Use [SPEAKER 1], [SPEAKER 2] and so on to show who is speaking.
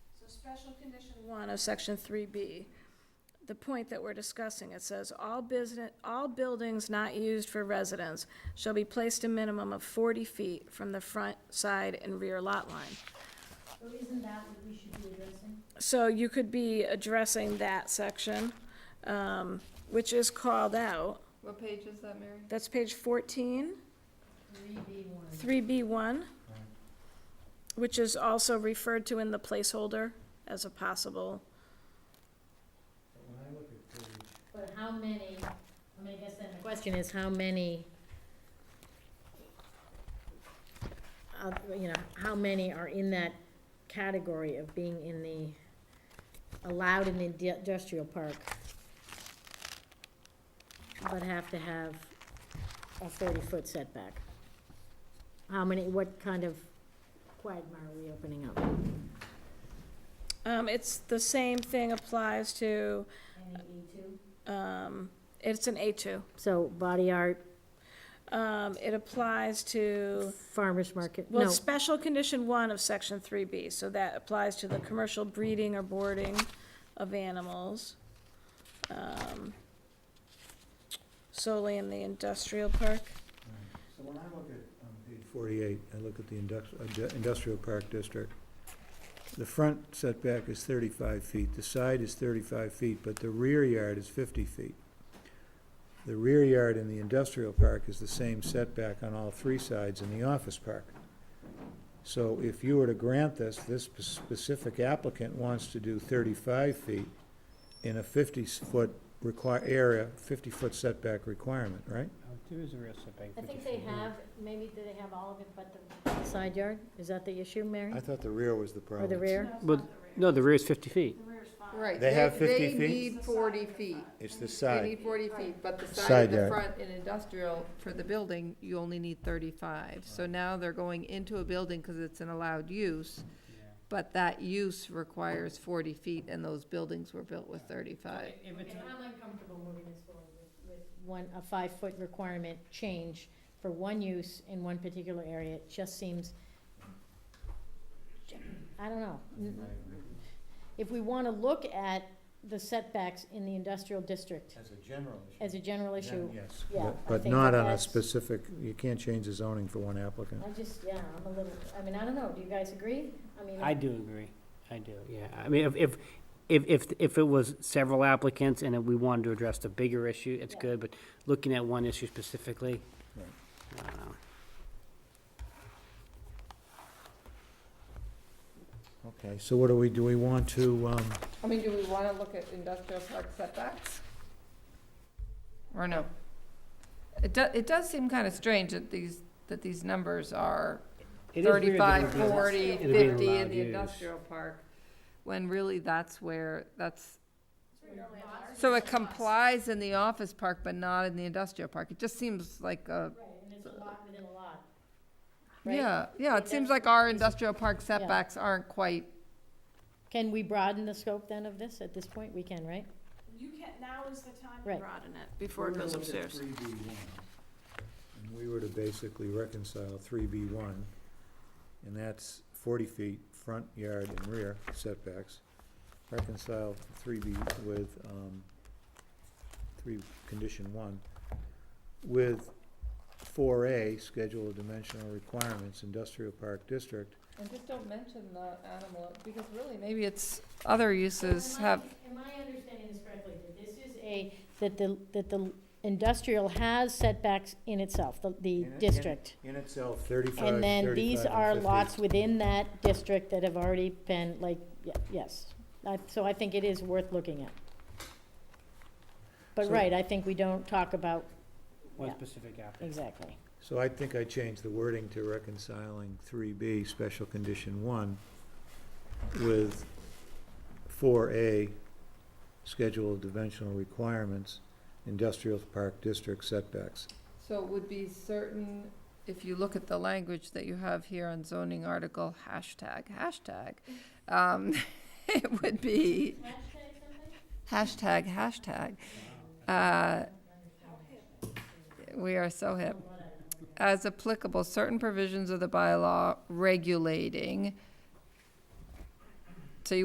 [SPEAKER 1] special condition one of section three B, the point that we're discussing, it says, all business, all buildings not used for residence shall be placed a minimum of forty feet from the front, side, and rear lot line.
[SPEAKER 2] So isn't that what we should be addressing?
[SPEAKER 1] So you could be addressing that section, um, which is called out.
[SPEAKER 3] What page is that, Mary?
[SPEAKER 1] That's page fourteen.
[SPEAKER 2] Three B one.
[SPEAKER 1] 3B1, which is also referred to in the placeholder as a possible,
[SPEAKER 4] But When I look at page,
[SPEAKER 2] But how many, I mean, I guess then the question is how many, of- uh, you know, how many are in that category of being in the, allowed in the indu- industrial park? But have to have a forty-foot setback? How many, what kind of quagmire are we opening up?
[SPEAKER 1] um, it's, the same thing applies to,
[SPEAKER 2] Any E two?
[SPEAKER 1] um, it's an A2.
[SPEAKER 2] So body art,
[SPEAKER 1] Um, It applies to,
[SPEAKER 2] farmer's market, no.
[SPEAKER 1] well, special condition one of section 3B, so that applies to the commercial breeding or boarding of animals um, solely in the industrial park.
[SPEAKER 4] so when I look at, um, page forty-eight, I look at the indux- uh, ju- industrial park district. The front setback is thirty-five feet, the side is thirty-five feet, but the rear yard is fifty feet. The rear yard in the industrial park is the same setback on all three sides in the office park. So if you were to grant this, this spe- specific applicant wants to do thirty-five feet in a fifty-foot require, area, fifty-foot setback requirement, right?
[SPEAKER 5] Oh, there is a real setback.
[SPEAKER 2] I
[SPEAKER 5] but
[SPEAKER 2] think
[SPEAKER 5] if
[SPEAKER 2] they
[SPEAKER 5] you-
[SPEAKER 2] have, maybe do they have all of it but the side yard? Is that the issue, Mary?
[SPEAKER 4] I thought the rear was the
[SPEAKER 2] Or
[SPEAKER 4] problem.
[SPEAKER 2] the rear?
[SPEAKER 5] But, no, the rear is fifty feet.
[SPEAKER 3] Right.
[SPEAKER 4] They have 50 feet?
[SPEAKER 3] They need forty feet.
[SPEAKER 4] It's the
[SPEAKER 3] They
[SPEAKER 4] side.
[SPEAKER 3] need forty feet, but the side
[SPEAKER 4] Side
[SPEAKER 3] of the
[SPEAKER 4] yard.
[SPEAKER 3] front in industrial for the building, you only need thirty-five. So now they're going into a building because it's an allowed use, but that use requires forty feet and those buildings were built with thirty-five.
[SPEAKER 2] I'm uncomfortable moving this forward with, with. One, a five-foot requirement change for one use in one particular area, it just seems, I don't know. If we wanna look at the setbacks in the industrial district
[SPEAKER 4] As a general
[SPEAKER 2] as a general issue,
[SPEAKER 4] Yes.
[SPEAKER 2] yeah, I
[SPEAKER 4] But
[SPEAKER 2] think
[SPEAKER 4] not
[SPEAKER 2] that
[SPEAKER 4] on a
[SPEAKER 2] that's-
[SPEAKER 4] specific, you can't change the zoning for one applicant.
[SPEAKER 2] I just, yeah, I'm a little, I mean, I don't know, do you guys agree? I mean.
[SPEAKER 5] I do agree, I do, yeah. I mean, if, if, if, if, if it was several applicants and we wanted to address the bigger issue, it's
[SPEAKER 2] Yeah.
[SPEAKER 5] good, but looking at one issue specifically, uh,
[SPEAKER 4] Right.
[SPEAKER 5] I don't know.
[SPEAKER 4] Okay, so what do we, do we want to, um,
[SPEAKER 3] I mean, do we want to look at industrial park setbacks? Or no? It does, it does seem kind of strange that these, that these numbers are
[SPEAKER 5] It is weird that
[SPEAKER 3] 35,
[SPEAKER 5] it'd be-
[SPEAKER 3] 40,
[SPEAKER 5] it'd be
[SPEAKER 3] 50 in
[SPEAKER 5] allowed
[SPEAKER 3] the
[SPEAKER 5] use.
[SPEAKER 3] industrial park, when really that's where, that's, so it complies in the office park, but not in the industrial park. It just seems like
[SPEAKER 2] Right,
[SPEAKER 3] a,
[SPEAKER 2] and it's a lot within a lot. Right.
[SPEAKER 3] yeah, yeah, it seems like our industrial park setbacks aren't quite,
[SPEAKER 2] Can we broaden the scope then of this at this point? We can, right?
[SPEAKER 1] You can, now is the time
[SPEAKER 2] Right.
[SPEAKER 1] broaden it
[SPEAKER 4] Three B one. And we were to basically reconcile three B one, and that's forty feet, front yard and rear setbacks. Reconcile three B with, um, three, condition one, with four A, schedule of dimensional requirements, industrial park district.
[SPEAKER 3] and just don't mention the animal, because really, maybe it's, other uses
[SPEAKER 2] Am I-
[SPEAKER 3] have,
[SPEAKER 2] Am I understanding this correctly, that this is a, that the, that the industrial has setbacks in itself, the, the
[SPEAKER 4] In it- in-
[SPEAKER 2] district?
[SPEAKER 4] In itself, thirty-five, thirty-five,
[SPEAKER 2] And then these are
[SPEAKER 4] and
[SPEAKER 2] lots
[SPEAKER 4] 50.
[SPEAKER 2] within that district that have already been, like, y- yes. I- So I think it is worth looking at. But
[SPEAKER 4] So-
[SPEAKER 2] right, I think we don't talk about,
[SPEAKER 5] One
[SPEAKER 2] Yeah.
[SPEAKER 5] specific applicant.
[SPEAKER 2] exactly.
[SPEAKER 4] So I think I changed the wording to reconciling three B, special condition one, with four A, schedule of dimensional requirements, industrial park district setbacks.
[SPEAKER 3] so it would be certain, if you look at the language that you have here on zoning article, hashtag, hashtag, um, it would be. Hashtag, hashtag. Uh, We are so hip. As applicable, certain provisions of the bylaw regulating